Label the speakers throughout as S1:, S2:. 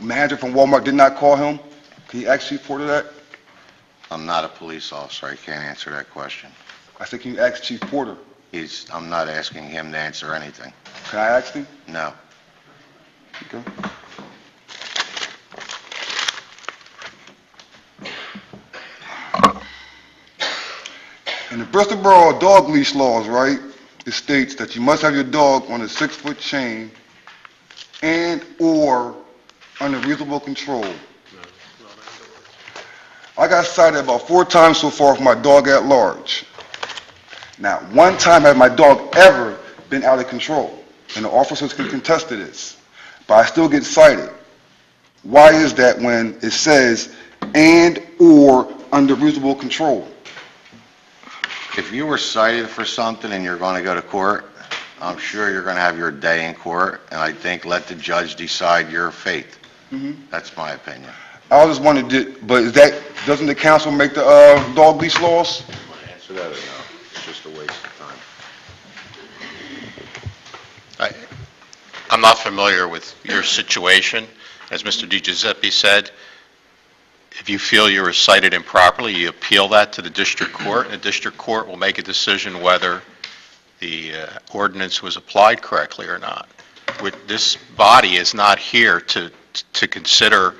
S1: manager from Walmart did not call him? Can you ask Chief Porter that?
S2: I'm not a police officer, I can't answer that question.
S1: I said, can you ask Chief Porter?
S2: He's, I'm not asking him to answer anything,
S1: Can I ask him?
S2: no.
S1: Okay. In the Bristol Borough dog leash laws, right, it states that you must have your dog on a six-foot chain and/or under reasonable control. I got cited about four times so far for my dog at large. Not one time has my dog ever been out of control, and the officers can contest to this, but I still get cited. Why is that when it says "and/or under reasonable control"?
S2: If you were cited for something and you're going to go to court, I'm sure you're going to have your day in court, and I think let the judge decide your fate.
S1: Mm-hmm.
S2: That's my opinion.
S1: I was just wondering, did- but is that, doesn't the council make the uh, dog leash laws?
S2: Answer that or no? It's just a waste of time.
S3: I'm not familiar with your situation. As Mr. DiGiuseppe said, if you feel you were cited improperly, you appeal that to the district court, and the district court will make a decision whether the uh, ordinance was applied correctly or not. With- This body is not here to, to consider,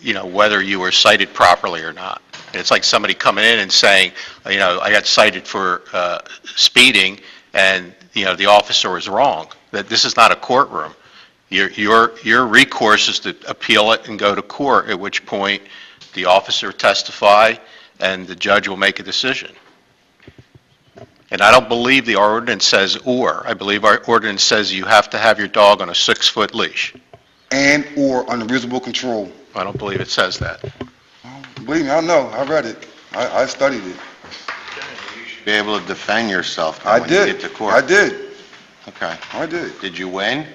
S3: you know, whether you were cited properly or not. It's like somebody coming in and saying, you know, I got cited for uh, speeding, and, you know, the officer was wrong, that this is not a courtroom. Your, your your recourse is to appeal it and go to court, at which point the officer testify, and the judge will make a decision. And I don't believe the ordinance says "or." I believe our ordinance says you have to have your dog on a six-foot leash.
S1: "And/or under reasonable control"?
S3: I don't believe it says that.
S1: Believe me, I know, I read it, I I studied it.
S2: Be able to defend yourself
S1: I
S2: when you
S1: did,
S2: get to court.
S1: I did,
S2: Okay.
S1: I did.
S2: Did you win?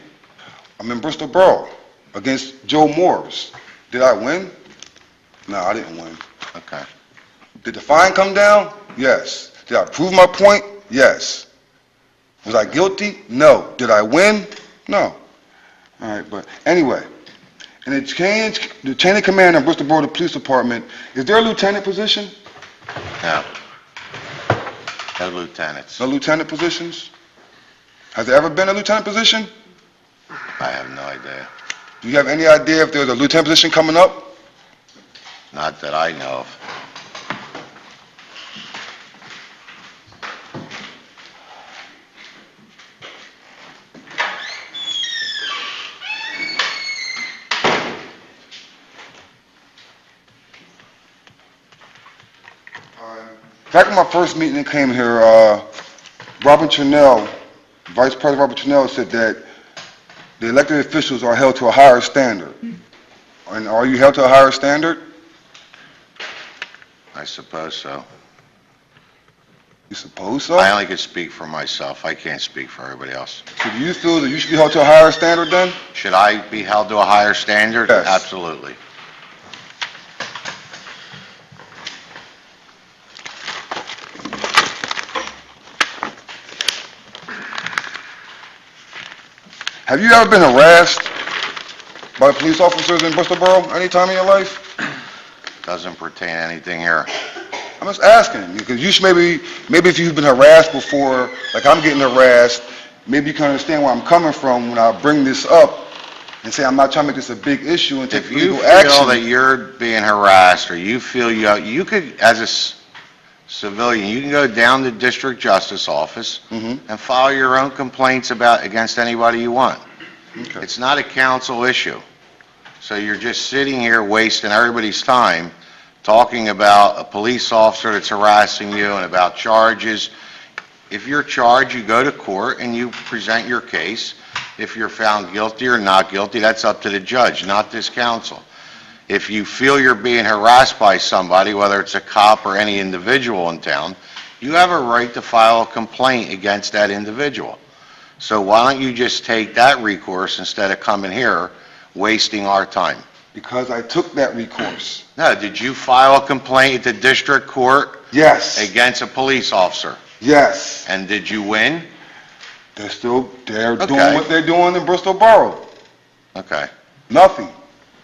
S1: I'm in Bristol Borough against Joe Morris. Did I win? No, I didn't win.
S2: Okay.
S1: Did the fine come down? Yes. Did I prove my point? Yes. Was I guilty? No. Did I win? No. All right, but anyway, and the change, the chain of command in Bristol Borough Police Department, is there a lieutenant position?
S2: No. No lieutenants.
S1: No lieutenant positions? Has there ever been a lieutenant position?
S2: I have no idea.
S1: Do you have any idea if there's a lieutenant position coming up?
S2: Not that I know of.
S1: Back in my first meeting that came here, uh, Robin Channell, Vice President Robert Channell said that the elected officials are held to a higher standard. And are you held to a higher standard?
S2: I suppose so.
S1: You suppose so?
S2: I only could speak for myself. I can't speak for everybody else.
S1: So do you feel that you should be held to a higher standard then?
S2: Should I be held to a higher standard?
S1: Yes.
S2: Absolutely.
S1: Have you ever been harassed by police officers in Bristol Borough any time in your life?
S2: Doesn't pertain to anything here.
S1: I'm just asking, because you should maybe, maybe if you've been harassed before, like I'm getting harassed, maybe you can understand where I'm coming from when I bring this up and say I'm not trying to make this a big issue and take
S2: If you
S1: legal
S2: feel that
S1: action.
S2: you're being harassed, or you feel you, you could, as a s- civilian, you can go down to District Justice Office
S1: Mhm.
S2: and file your own complaints about, against anybody you want.
S1: Okay.
S2: It's not a council issue. So you're just sitting here wasting everybody's time talking about a police officer that's harassing you and about charges. If you're charged, you go to court and you present your case. If you're found guilty or not guilty, that's up to the judge, not this council. If you feel you're being harassed by somebody, whether it's a cop or any individual in town, you have a right to file a complaint against that individual. So why don't you just take that recourse instead of coming here, wasting our time?
S1: Because I took that recourse.
S2: No, did you file a complaint at the district court
S1: Yes,
S2: against a police officer?
S1: yes.
S2: And did you win?
S1: They're still, they're doing
S2: Okay.
S1: what they're doing in Bristol Borough.
S2: Okay.
S1: Nothing.